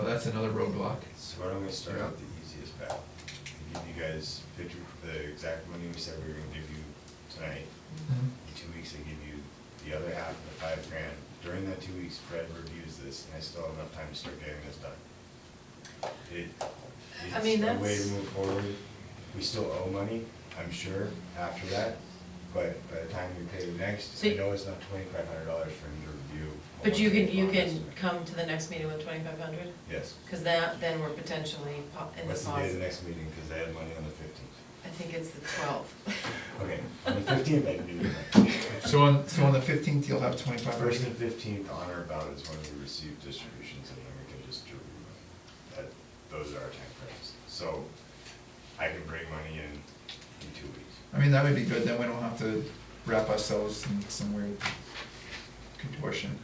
Oh, that's another roadblock. So why don't we start Yeah. out the easiest path? Give you guys fifty, the exact money we said we were gonna give you tonight. Mm-hmm. In two weeks, I give you the other half of the five grand. During that two weeks, Fred reviews this, and I still have enough time to start getting this done. It, I mean, it's a way to that's- move forward. We still owe money, I'm sure, after that, but by the time we pay the next, So I you- know it's not twenty-five hundred dollars for him to review. a But you can, one-page you bond can estimate. come to the next meeting with twenty-five hundred? Yes. Because that, then we're potentially po- in the What's the day of the positive. next meeting, because I had money on the fifteenth. I think it's the twelfth. Okay, on the fifteenth, I can do it. So on, so on the fifteenth, you'll have twenty-five First and percent. fifteenth on or about is when we receive distributions, and then we can just, distribute them. that, those are our timeframes. So I can bring money in in two weeks. I mean, that would be good, then we don't have to wrap ourselves in some weird contortion,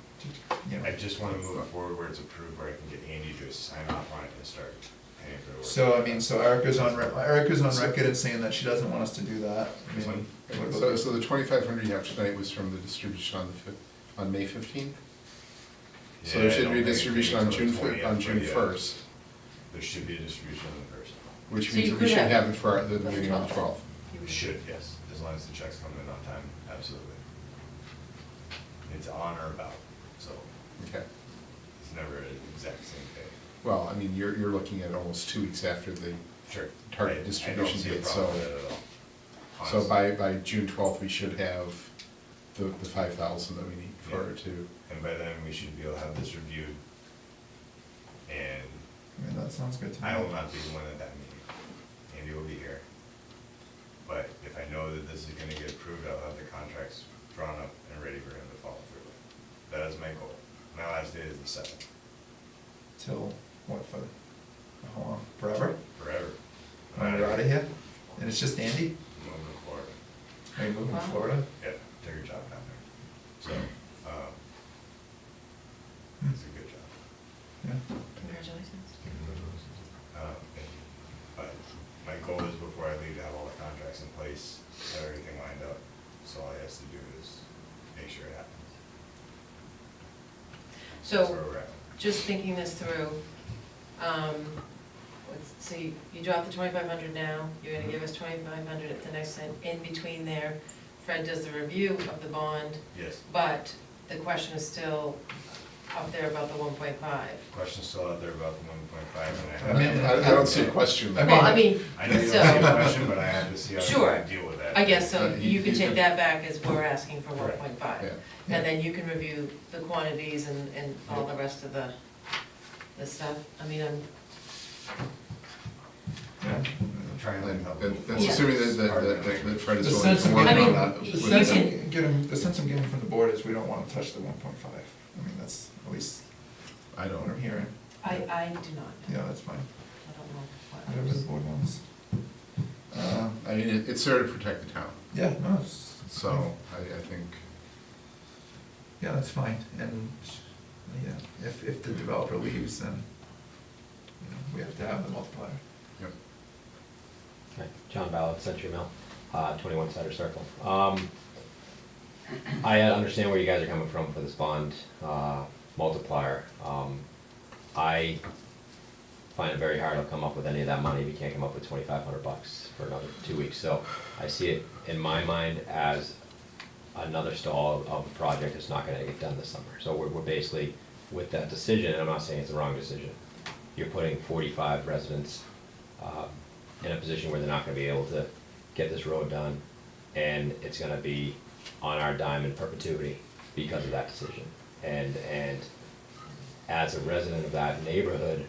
you I know. just wanna move it forward where it's approved, where I can get Andy to sign off on it and start paying for the work. So, I mean, so Erica's on, re- Erica's on record as saying that she doesn't want us to do that. I mean, what about So, this? so the twenty-five hundred you have tonight was from the distribution on the fif, on May fifteenth? So Yeah, I there should don't be a think it distribution takes on till June, the fir- 20th, on June but yeah, first, There should be a distribution on the first. So which you means that could we should have have it for our- the for the meeting on the 12th. twelfth. It Should, yes, as long as the checks come in on time, absolutely. It's on or about, so Okay, it's never an exact same day. well, I mean, you're, you're looking at almost two weeks after the, Sure. Target I- distribution I don't date, see a problem so- with that at all. so honestly. by, by June twelfth, we should have the, the five thousand that we need for Yeah. it to. And by then, we should be able to have this reviewed. And I mean, that sounds good to me. I will not be the one at that meeting. Andy will be here. But if I know that this is gonna get approved, I'll have the contracts drawn up and ready for him to follow through with. That is my goal. My last day is the seventh, Till, what, for, how long, forever? forever. When we're out of here? And it's just Andy? I'm over to Florida. Are you moving to Wow. Florida? Yeah, take your job down there. So, um, Hmm. it's a good job. Yeah. Congratulations. Um, But uh, my goal is before I leave to have all the contracts in place, have everything lined up. So all I has to do is make sure it happens. That's where So, we're at. just thinking this through, um, let's see, you drop the twenty-five hundred now, you're gonna give us twenty-five hundred at the next, and in between there, Fred does the review of the bond, Yes, but the question is still up there about the one point five. questions still out there about the one point five and I I have. mean, I, I don't see a question. I there. Well, I mean, I know you don't see a so, question, but I have to see how Sure. to deal with that. I guess, so Uh, you- you can you take can- that back as we're asking for one Correct. point five. Yeah. And then you can review the quantities and, and all the rest of the, the stuff. I mean, I'm, Yeah. I'm Trying to And- help. and move That's Yeah. forward. assuming that, It's hard that, to that- that make- Fred The is willing sense to I'm work I mean, on that. you getting, the with can- sense that. I'm getting, the sense I'm getting from the board is we don't wanna touch the one point five. I mean, that's at least I what I'm don't, hearing. I, I do not know. Yeah, that's fine. I don't know what Whatever the others. board wants. Uh, I mean, it- it's there to protect the town, Yeah, no, it's. so I, I think. Yeah, that's fine, and, yeah, if, if the developer leaves, then, you know, we have to have the multiplier. Yep. Right, John Ballard, Century Mill, uh, 21 Sutter Circle. Um, I understand where you guys are coming from for this bond uh, multiplier. Um, I find it very hard to come up with any of that money. We can't come up with 2,500 bucks for another two weeks. So I see it in my mind as another stall of a project that's not gonna get done this summer. So we're, we're basically, with that decision, and I'm not saying it's the wrong decision, you're putting forty-five residents, um, in a position where they're not gonna be able to get this road done, and it's gonna be on our dime in perpetuity because of that decision. And, and as a resident of that neighborhood,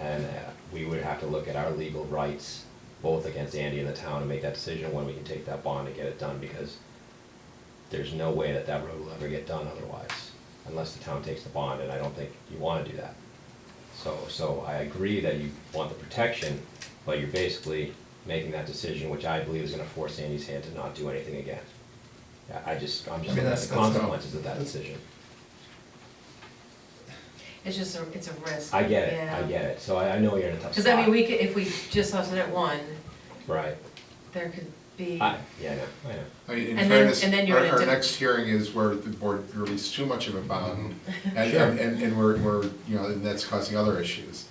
and uh, we would have to look at our legal rights, both against Andy and the town, and make that decision when we can take that bond and get it done, because there's no way that that road will ever get done otherwise, unless the town takes the bond, and I don't think you wanna do that. So, so I agree that you want the protection, but you're basically making that decision, which I believe is gonna force Andy's hand to not do anything again. I, I just, I'm I mean, just looking at that's- the that's not- consequences of that that's- decision. It's just a, it's a risk. I get it, I get it, so I, I know you're in a tough Because spot. I mean, we could, if we just left it at one, Right, there could be, I, yeah, I know, I know. I mean, And in then- fairness, and then you're our, in a our different- next hearing is where the board released too much of a bond, and, Sure. and, and- and we're, we're, you know, and that's causing other issues.